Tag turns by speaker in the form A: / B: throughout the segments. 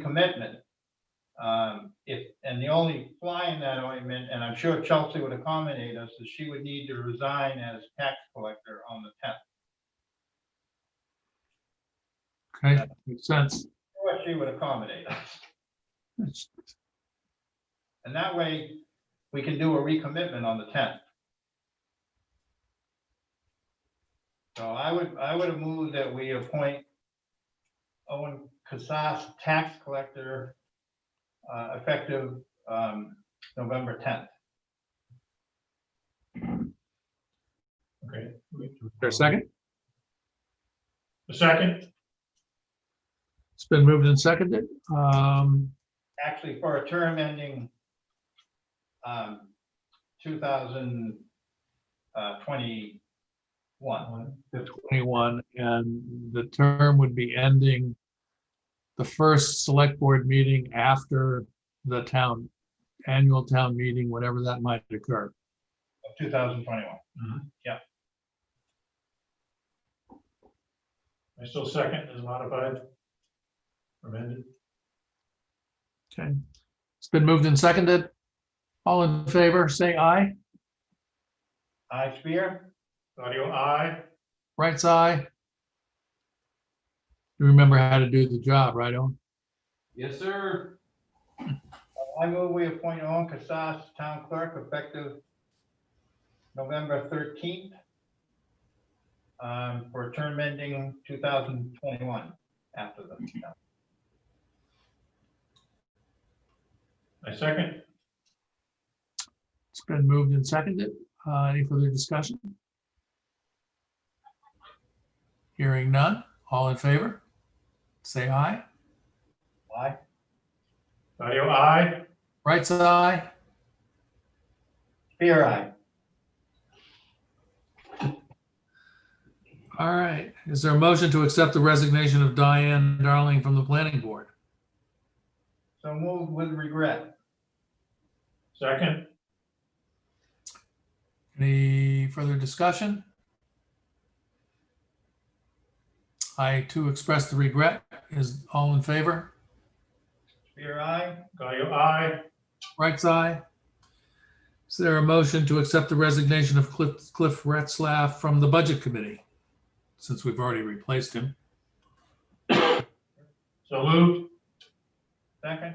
A: recommitment. Um, if, and the only fly in that ointment, and I'm sure Chelsea would accommodate us, is she would need to resign as tax collector on the tenth.
B: Okay, makes sense.
A: Or she would accommodate us.
B: That's-
A: And that way, we can do a recommitment on the tenth. So I would, I would have moved that we appoint Owen Casas, tax collector, uh, effective, um, November tenth.
C: Okay.
B: There a second?
C: A second?
B: It's been moved and seconded. Um,
A: actually for a term ending um, uh, 2021.
B: twenty-one, and the term would be ending the first select board meeting after the town, annual town meeting, whenever that might occur.
A: of 2021.
C: I still second is modified. Amended.
B: Okay. It's been moved and seconded. All in favor, say aye.
A: I, Spear,
C: Audio I,
B: Right side. You remember how to do the job, right, Owen?
D: Yes, sir.
A: I move we appoint Owen Casas, town clerk, effective November 13th um, for a term ending 2021 after the.
C: I second.
B: It's been moved and seconded. Uh, Any further discussion? Hearing none. All in favor? Say aye.
A: I,
C: Audio I,
B: Right side.
A: Spear, I.
B: All right. Is there a motion to accept the resignation of Diane Darling from the planning board?
A: So moved with regret.
C: second.
B: Any further discussion? I too express the regret. Is all in favor?
A: Spear, I.
C: Audio I,
B: Right side. Is there a motion to accept the resignation of Cliff Cliff Retzlaff from the Budget Committee? Since we've already replaced him.
C: so moved.
A: Second,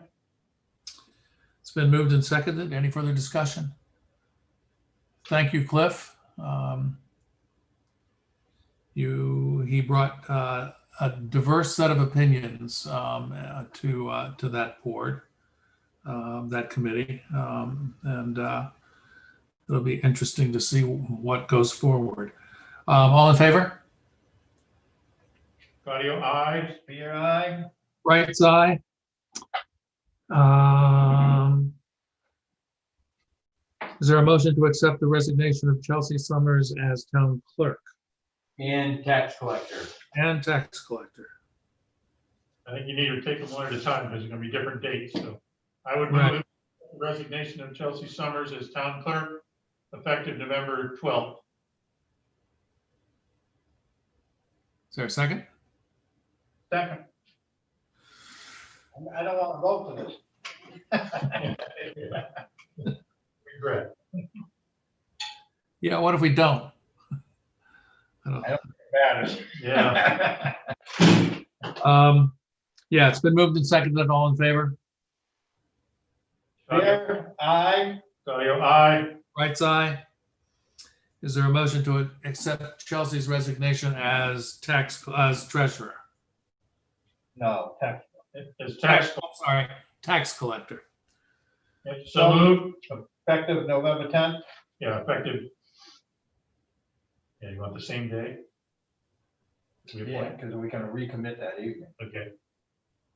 B: It's been moved and seconded. Any further discussion? Thank you, Cliff. Um, You, he brought uh, a diverse set of opinions um, uh, to, uh, to that board, um, that committee. Um, And uh, it'll be interesting to see what goes forward. Um, All in favor?
C: Audio I,
A: Spear, I.
B: Right side? Um, Is there a motion to accept the resignation of Chelsea Summers as town clerk
D: And tax collector.
B: and tax collector?
C: I think you need to take them one at a time because there's gonna be different dates, so. I would
B: Right.
C: move resignation of Chelsea Summers as town clerk effective November twelfth.
B: Is there a second?
A: Second. I don't want to vote for this.
C: Regret.
B: Yeah, what if we don't? I don't-
A: Matters.
C: Yeah,
B: Um, Yeah, it's been moved and seconded. All in favor?
A: Spear, I,
C: Audio I,
B: Right side? Is there a motion to accept Chelsea's resignation as tax, as treasurer?
A: no, tax.
C: as tax,
B: I'm Oh, Sorry, tax collector.
C: so moved.
A: effective November tenth,
C: Yeah, effective. Yeah, you want the same day? We
A: yeah,
C: appoint,
A: because we can recommit that evening.
C: okay.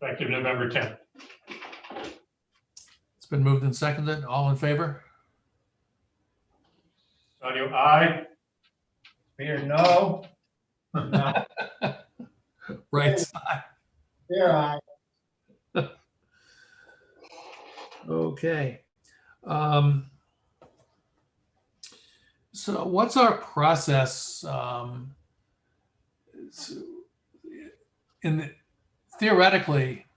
C: Effective November tenth.
B: It's been moved and seconded. All in favor?
C: Audio I,
A: Spear, no. No,
B: Right
A: Spear, I,
B: Okay. Um, So what's our process? um, s- In the- theoretically,